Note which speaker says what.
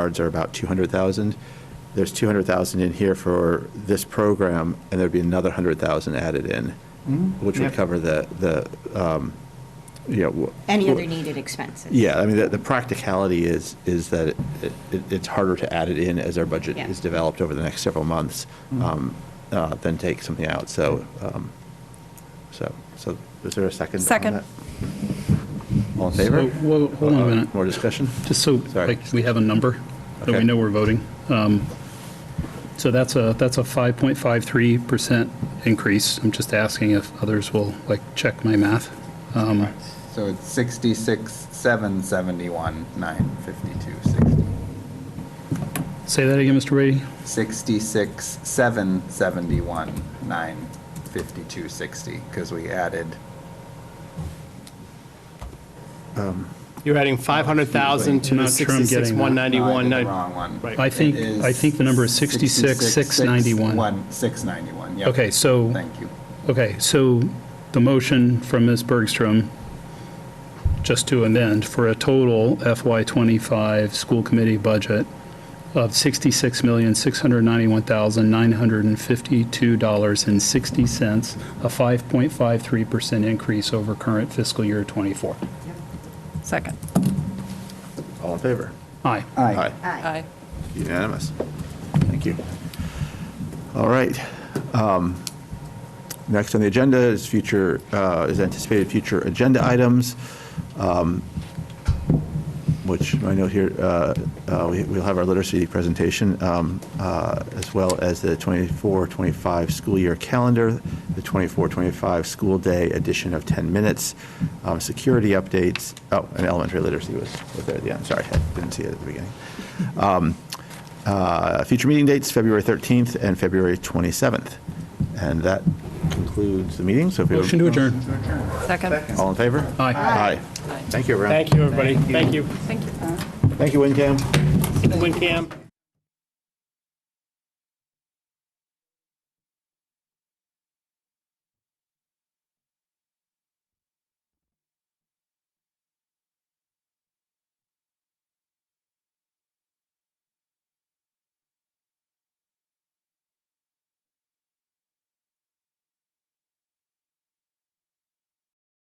Speaker 1: cards are about 200,000. There's 200,000 in here for this program, and there'd be another 100,000 added in, which would
Speaker 2: Mm-hmm. Yep.
Speaker 1: cover the, the, um, you know. wh-
Speaker 3: Any other needed expenses.
Speaker 1: Yeah, I mean, the, the practicality is, is that it, it, it's harder to add it in as our budget
Speaker 3: Yeah.
Speaker 1: is developed over the next several months,
Speaker 2: Mm-hmm.
Speaker 1: um, uh, than take something out, so, um, so, so is there a second on
Speaker 4: Second.
Speaker 1: that? All in favor?
Speaker 2: So, whoa, hold on a
Speaker 1: Uh,
Speaker 2: minute.
Speaker 1: More discussion?
Speaker 2: Just so,
Speaker 1: Sorry.
Speaker 2: like, we have a number that we
Speaker 1: Okay.
Speaker 2: know we're voting. Um, So that's a, that's a 5.53% increase. I'm just asking if others will, like, check my math. Um,
Speaker 5: So it's 66, 771, 952, 60.
Speaker 2: Say that again, Mr. Brady?
Speaker 5: 66, 771, 952, 60, because we added,
Speaker 6: You're adding 500,000 to
Speaker 2: I'm
Speaker 6: the
Speaker 2: Oh, not sure I'm getting that.
Speaker 6: 66,
Speaker 5: no, I
Speaker 6: 191.
Speaker 5: did the wrong one.
Speaker 6: Right.
Speaker 2: I think,
Speaker 5: It is
Speaker 2: I think the number is 66, 691.
Speaker 5: 1, 691, yep.
Speaker 2: Okay, so,
Speaker 5: Thank you.
Speaker 2: okay, so the motion from Ms. Bergstrom, just to amend, for a total FY25 school committee budget of $66,691,952.60, a 5.53% increase over current fiscal year '24.
Speaker 4: Second.
Speaker 1: All in favor?
Speaker 2: Aye.
Speaker 5: Aye.
Speaker 3: Aye.
Speaker 4: Aye.
Speaker 1: Unanimous. Thank you. All right. Um, Next on the agenda is future, uh, is anticipated future agenda items, um, which I note here, uh, uh, we- we'll have our literacy presentation, um, uh, as well as the 24-25 school year calendar, the 24-25 school day edition of 10 minutes, um, security updates, oh, and elementary literacy was was there at the end, sorry, I didn't see it at the beginning. Um, uh, Future meeting dates, February 13th and February 27th. And that concludes the meeting, so if you.
Speaker 2: Motion to adjourn.
Speaker 4: Second.
Speaker 1: All in favor?
Speaker 2: Aye.
Speaker 1: Aye. Thank you, everyone.
Speaker 6: Thank you, everybody. Thank you.
Speaker 4: Thank you.
Speaker 1: Thank you, WinCam.
Speaker 6: WinCam.